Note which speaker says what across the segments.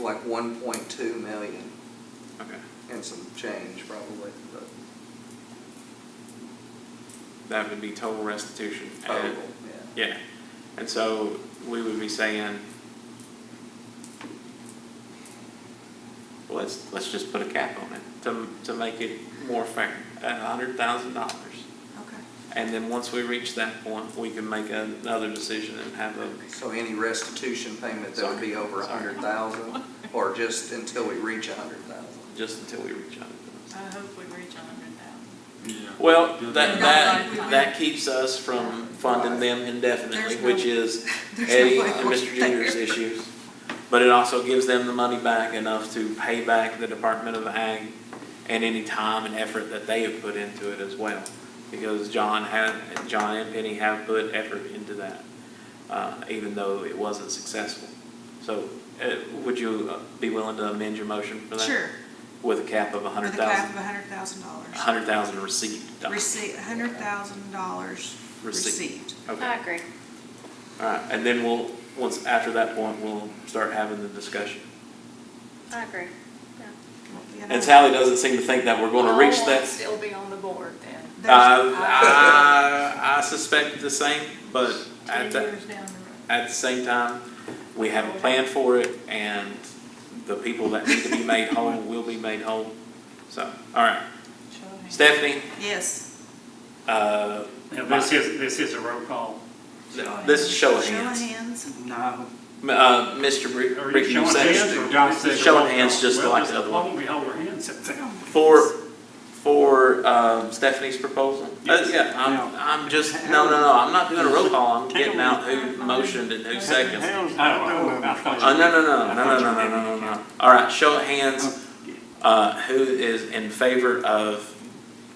Speaker 1: like one point two million
Speaker 2: Okay,
Speaker 1: and some change probably, but
Speaker 2: that would be total restitution. at-
Speaker 1: total, yeah.
Speaker 2: Yeah, and so we would be saying, well, let's, let's just put a cap on it to, to make it more fair, a hundred thousand dollars.
Speaker 3: Okay.
Speaker 2: And then once we reach that point, we can make another decision and have a,
Speaker 1: So any restitution payment that would be over a hundred thousand, or just until we reach a hundred thousand?
Speaker 2: just until we reach a hundred thousand.
Speaker 3: I hope we reach a hundred thousand.
Speaker 2: Well, that,
Speaker 3: Not
Speaker 2: that,
Speaker 3: like-
Speaker 2: that keeps us from funding them indefinitely,
Speaker 3: There's no-
Speaker 2: which is
Speaker 3: there's no
Speaker 2: Eddie
Speaker 3: way
Speaker 2: and
Speaker 3: we're
Speaker 2: Mr. Junior's
Speaker 3: there.
Speaker 2: issues. But it also gives them the money back enough to pay back the Department of Ag and any time and effort that they have put into it as well. Because John had, John and Penny have put effort into that, uh, even though it wasn't successful. So, uh, would you uh, be willing to amend your motion for that?
Speaker 3: Sure,
Speaker 2: With a cap of a hundred
Speaker 3: with a cap of
Speaker 2: thousand,
Speaker 3: a hundred thousand
Speaker 2: a
Speaker 3: dollars.
Speaker 2: hundred thousand received.
Speaker 3: Receipt, a hundred thousand dollars
Speaker 2: Receipt.
Speaker 3: received.
Speaker 2: Okay.
Speaker 4: I agree.
Speaker 2: All right, and then we'll, once, after that point, we'll start having the discussion.
Speaker 4: I agree.
Speaker 3: You know,
Speaker 2: And Sally doesn't seem to think that we're gonna reach
Speaker 3: Oh,
Speaker 2: that.
Speaker 4: Still be on the board then.
Speaker 2: Uh,
Speaker 3: there's-
Speaker 2: I, I suspect the same, but at
Speaker 3: Ten
Speaker 2: the,
Speaker 3: years down the road.
Speaker 2: at the same time, we have a plan for it, and the people that need to be made whole will be made whole. So, all right,
Speaker 3: Show of hands.
Speaker 2: Stephanie,
Speaker 3: Yes.
Speaker 2: uh,
Speaker 5: Now, this is, this is a roll call.
Speaker 2: this is show of
Speaker 3: Show
Speaker 2: hands.
Speaker 3: of hands.
Speaker 6: No,
Speaker 2: Uh, Mr. Rick,
Speaker 5: Are
Speaker 2: Rick,
Speaker 5: you
Speaker 2: you
Speaker 5: showing hands
Speaker 2: second.
Speaker 5: or John says?
Speaker 2: Showing
Speaker 5: roll call?
Speaker 2: hands just
Speaker 5: Well,
Speaker 2: like the other
Speaker 5: Why
Speaker 2: one.
Speaker 5: won't we hold our hands up there?
Speaker 2: For, for, um, Stephanie's proposal? Uh,
Speaker 5: Yes.
Speaker 2: Yeah,
Speaker 6: No.
Speaker 2: I'm, I'm just, no, no, no, I'm not doing a roll call, I'm getting out who motioned and who seconded.
Speaker 6: hell's
Speaker 5: Oh, I thought you-
Speaker 2: Oh, no, no, no,
Speaker 5: I
Speaker 2: no, no,
Speaker 5: thought
Speaker 2: no,
Speaker 5: you
Speaker 2: no,
Speaker 5: did.
Speaker 2: no, no, no. All right, show of hands, uh, who is in favor of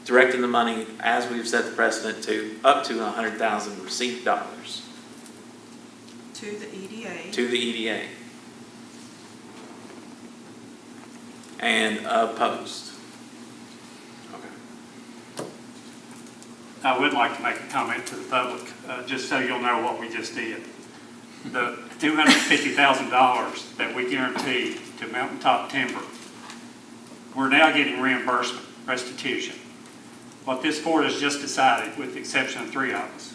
Speaker 2: directing the money as we've set the precedent to up to a hundred thousand receipt dollars
Speaker 3: To the E EDA.
Speaker 2: to the E EDA? And opposed? Okay.
Speaker 5: I would like to make a comment to the public, uh, just so you'll know what we just did. The two hundred fifty thousand dollars that we guaranteed to Mountaintop Timber, we're now getting reimbursement, restitution. What this board has just decided, with the exception of three of us,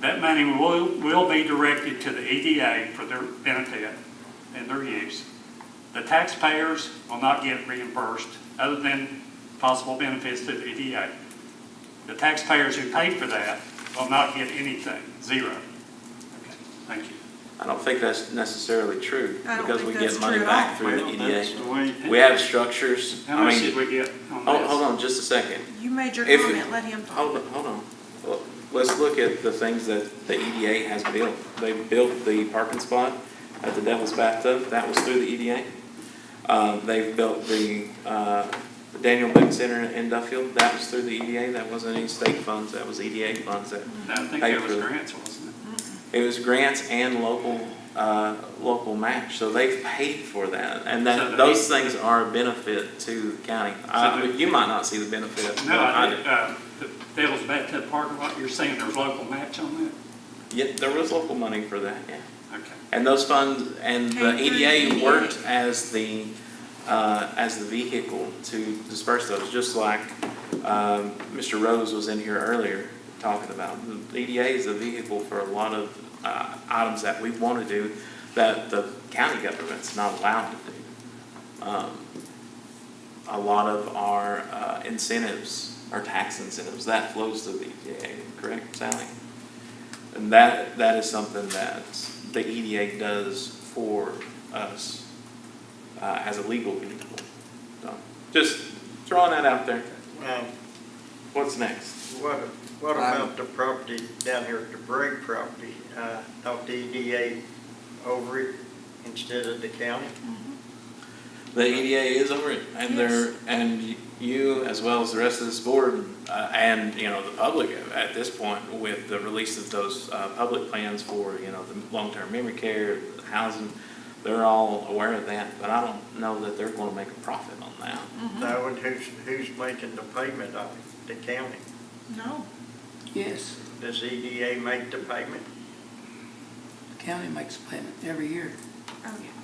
Speaker 5: that money will, will be directed to the EDA for their benefit and their use. The taxpayers will not get reimbursed, other than possible benefits to the E EDA. The taxpayers who paid for that will not get anything, zero. Okay, Thank you.
Speaker 2: I don't think that's necessarily true,
Speaker 3: I don't
Speaker 2: because we
Speaker 3: think
Speaker 2: get
Speaker 3: that's
Speaker 2: money
Speaker 3: true at
Speaker 2: back
Speaker 3: all.
Speaker 2: through the
Speaker 5: Well, that's
Speaker 2: EDA.
Speaker 5: the way-
Speaker 2: We have structures,
Speaker 5: How
Speaker 2: I
Speaker 5: much did
Speaker 2: mean,
Speaker 5: we get Oh, on
Speaker 2: hold, hold
Speaker 5: this?
Speaker 2: on just a second,
Speaker 3: You made your
Speaker 2: If-
Speaker 3: comment, let him talk.
Speaker 2: hold, on- hold on. Well, Let's look at the things that the EDA has built. They built the parking spot at the Devil's Bathtub, that was through the EDA. Uh, they've built the, uh, the Daniel Boone Center in Duffield, that was through the EDA, that wasn't any state funds, that was EDA funds that
Speaker 5: I think
Speaker 2: Paid
Speaker 5: that was
Speaker 2: for it.
Speaker 5: grants, wasn't it?
Speaker 2: It was grants and local, uh, local match, so they've paid for that, and
Speaker 5: So
Speaker 2: that,
Speaker 5: the-
Speaker 2: those things are a benefit to the county. Uh,
Speaker 5: the-
Speaker 2: you might not see the benefit. but
Speaker 5: No, I
Speaker 2: do.
Speaker 5: did, uh, the Devil's Bathtub parking lot, you're saying there's local match on
Speaker 2: Yeah, there was local money for that, yeah.
Speaker 5: that? Okay.
Speaker 2: And those funds, and the
Speaker 3: Came through E the
Speaker 2: EDA
Speaker 3: EDA.
Speaker 2: worked as the, uh, as the vehicle to disperse those, just like, um, Mr. Rose was in here earlier talking about. The EDA is the vehicle for a lot of, uh, items that we wanna do that the county government's not allowed to do. Um, A lot of our uh, incentives, our tax incentives, that flows to the EDA, correct, Sally? And that, that is something that the EDA does for us uh, as a legal vehicle. So, Just throwing that out there.
Speaker 7: Um,
Speaker 2: What's next?
Speaker 7: What, what about the property down here, the Bragg property? Uh, Thought the EDA over it instead of the county?
Speaker 2: The EDA is over it, and they're, and you, as well as the rest of this board, uh, and, you know, the public at this point, with the release of those uh, public plans for, you know, the long-term memory care, housing, they're all aware of that, but I don't know that they're gonna make a profit on that.
Speaker 7: No, and who's, who's making the payment of it? The county?
Speaker 3: No,
Speaker 8: Yes,
Speaker 7: Does EDA make the payment?
Speaker 8: the county makes a payment every year.
Speaker 3: oh, yeah.